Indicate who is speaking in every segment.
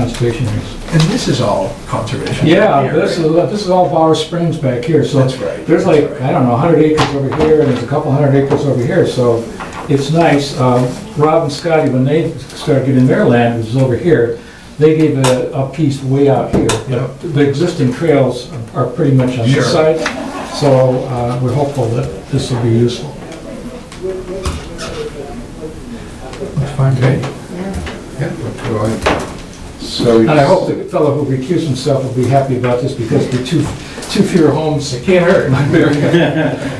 Speaker 1: conservation areas.
Speaker 2: And this is all conservation.
Speaker 1: Yeah,
Speaker 2: here,
Speaker 1: this
Speaker 2: right?
Speaker 1: is, this is all Bauer Springs back here, so.
Speaker 2: That's right,
Speaker 1: There's
Speaker 2: that's
Speaker 1: like,
Speaker 2: right.
Speaker 1: I don't know, 100 acres over here, and there's a couple hundred acres over here, so it's nice. Uh, Rob and Scotty, when they started getting their land, which is over here, they gave a, a piece way out here.
Speaker 2: Yep.
Speaker 1: The existing trails are pretty much on this
Speaker 2: Sure.
Speaker 1: side, so uh, we're hopeful that this will be useful.
Speaker 2: Okay. Yeah, what do I- So.
Speaker 1: And I hope the fellow who recused himself will be happy about this, because the two, two fewer homes, it can't hurt.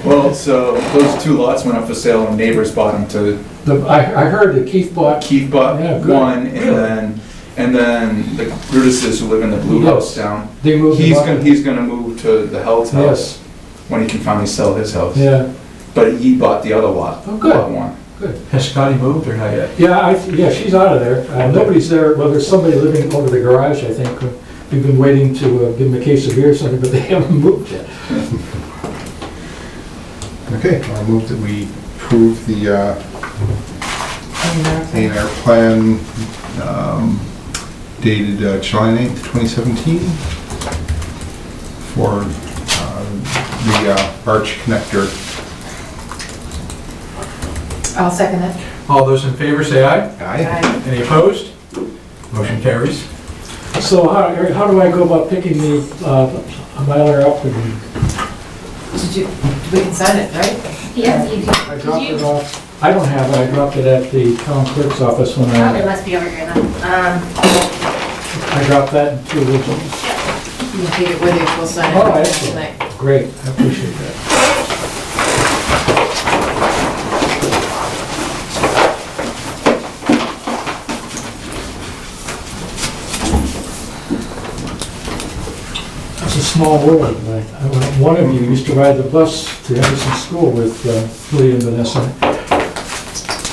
Speaker 3: Well, so those two lots went up for sale and neighbors bought them to,
Speaker 1: The- I, I heard that Keith bought,
Speaker 3: Keith bought
Speaker 1: Yeah, good.
Speaker 3: one and
Speaker 1: Really?
Speaker 3: then, and then the Brutuses who live in the blue
Speaker 1: Yes.
Speaker 3: house down.
Speaker 1: they moved.
Speaker 3: He's
Speaker 1: him up.
Speaker 3: gonna, he's gonna move to the Hell's
Speaker 1: Yes,
Speaker 3: house when he can finally sell his house.
Speaker 1: yeah,
Speaker 3: But he bought the other lot.
Speaker 1: Oh, good.
Speaker 3: lot one.
Speaker 1: good.
Speaker 2: Has Scotty moved or not yet?
Speaker 1: Yeah, I, yeah, she's out of there. Uh, Nobody's there, well, there's somebody living over the garage, I think. We've been waiting to uh, give them a case of beer or something, but they haven't moved yet.
Speaker 4: Okay, I'll move that we approve the uh, A and R plan um, dated uh, July 9th, 2017 for uh, the uh, arch connector.
Speaker 5: I'll second it.
Speaker 2: All those in favor say aye.
Speaker 4: Aye.
Speaker 2: Any opposed? Motion carries.
Speaker 1: So how, Eric, how do I go about picking the, uh, Mylar up and?
Speaker 5: Did you, we can sign it, right?
Speaker 6: Yeah, you do.
Speaker 1: I
Speaker 6: Did
Speaker 1: dropped
Speaker 6: you-
Speaker 1: it off. I don't have it, I dropped it at the town clerk's office when
Speaker 6: Oh, it
Speaker 1: I,
Speaker 6: must be over here then. Um,
Speaker 1: I dropped that in two originals.
Speaker 5: You can take it with you, we'll sign it.
Speaker 1: All right,
Speaker 5: tonight.
Speaker 1: excellent. Great, I appreciate that. It's a small world, right? I- One of you used to ride the bus to Henderson School with uh, Lee and Vanessa.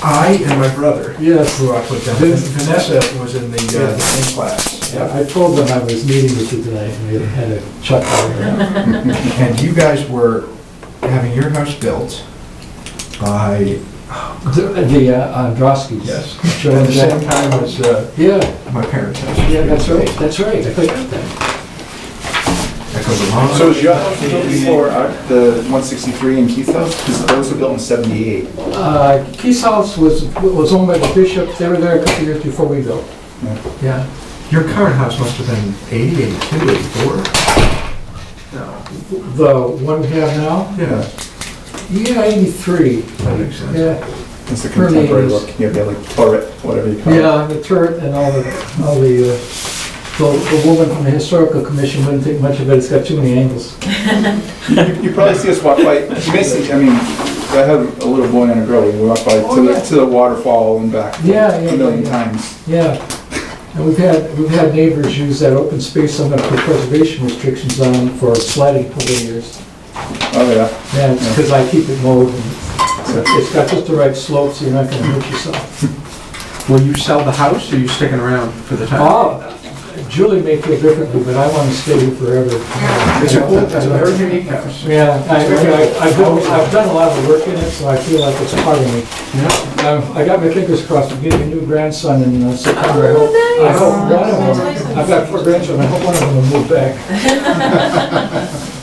Speaker 2: I and my brother
Speaker 1: Yes.
Speaker 2: grew up with them.
Speaker 1: Vin-
Speaker 2: Vanessa was in the uh, same class.
Speaker 1: Yeah, I told them I was meeting with you tonight, and we had a chuckle.
Speaker 2: And you guys were having your house built by,
Speaker 1: The the, uh, Androskis.
Speaker 2: yes,
Speaker 1: Sure,
Speaker 2: at the
Speaker 1: yeah.
Speaker 2: same time as uh,
Speaker 1: Yeah,
Speaker 2: my parents' house.
Speaker 1: yeah, that's right, that's right, I forgot that.
Speaker 2: That goes along.
Speaker 3: So is your house built before our- the 163 and Keith's house? Because those were built in 78.
Speaker 1: Uh, Keith's house was, was owned by the bishop, they were there a couple of years before we built.
Speaker 2: Yeah. Your current house must have been 80, 82, 84? No.
Speaker 1: The one we have now,
Speaker 2: Yeah.
Speaker 1: yeah, eighty-three,
Speaker 2: That makes sense.
Speaker 1: yeah,
Speaker 3: It's the
Speaker 1: Early
Speaker 3: contemporary
Speaker 1: 80s.
Speaker 3: look. You have the like turret, whatever you call it.
Speaker 1: yeah, the turret and all the, all the, uh, the the woman from the historical commission wouldn't think much of it, it's got too many angles.
Speaker 3: You probably see us walk by, you may see, I mean, I had a little boy and a girl, we walked by
Speaker 1: Oh,
Speaker 3: to the,
Speaker 1: yeah.
Speaker 3: to the waterfall and back
Speaker 1: Yeah, yeah,
Speaker 3: a million
Speaker 1: yeah.
Speaker 3: times.
Speaker 1: Yeah, and we've had, we've had neighbors use that open space I'm gonna put preservation restrictions on for sliding over the years.
Speaker 3: Oh, yeah.
Speaker 1: Yeah, because I keep it mowed, and it's- it's got just the right slope, so you're not gonna hurt yourself.
Speaker 2: Will you sell the house, or are you sticking around for the time?
Speaker 1: Oh, Julie may feel differently, but I wanna stay here forever.
Speaker 2: It's a cool, it's a very unique house.
Speaker 1: Yeah, I, I- I've, done- I've done a lot of work in it, so I feel like it's part of me. Um, I got my fingers crossed, I'm getting a new grandson in uh, September,
Speaker 2: Oh,
Speaker 1: I hope. I hope one of them, I've got four grandchildren, I hope one of them will move back.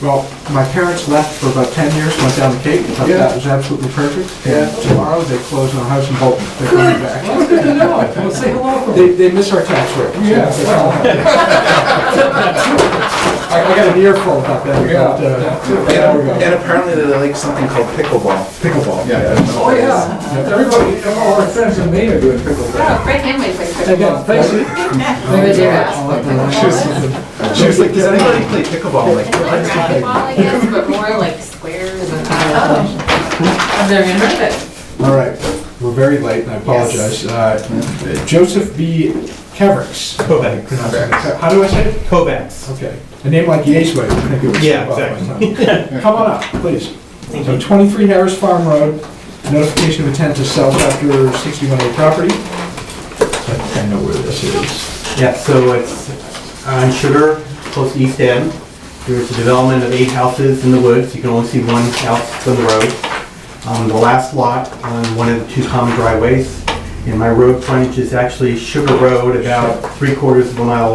Speaker 2: Well, my parents left for about 10 years, went down the Cape, thought
Speaker 1: Yeah.
Speaker 2: that was absolutely perfect. And tomorrow, they close on a house in Bolton. They're coming back.
Speaker 1: Well, good to know. Well, say hello.
Speaker 2: They, they miss our tax rate.
Speaker 1: Yeah, well,
Speaker 2: I I got an earful about that. about, uh,
Speaker 3: And and apparently they like something called pickleball. Pickleball.
Speaker 4: Yeah.
Speaker 1: oh, yeah. Everybody, all our friends in Maine are doing pickleball.
Speaker 6: oh, Fred Hanway plays
Speaker 1: Again,
Speaker 6: pickleball.
Speaker 1: thanks. Thank you.
Speaker 5: Over there.
Speaker 1: Josh.
Speaker 3: She was like, does anybody play pickleball? I'm like,
Speaker 6: It's like volleyball, I guess, but more like squares and. uh,
Speaker 5: Oh. I've never even heard of it.
Speaker 2: All right, we're very late, and I apologize. Uh, Joseph B. Kevricks. Kovacs. How do I say it? Kovacs. Okay. A name like Yesway, I think it was. Yeah, exactly. Come on up, please. So 23 Harris Farm Road, notification of intent to sell chapter 61A property. I think I know where this is.
Speaker 7: Yeah, so it's uh, on Sugar, close to East End. There's a development of eight houses in the woods. You can only see one house from the road. Um, The last lot on one of the two common driveways And my road frontage is actually Sugar Road, about three quarters of a mile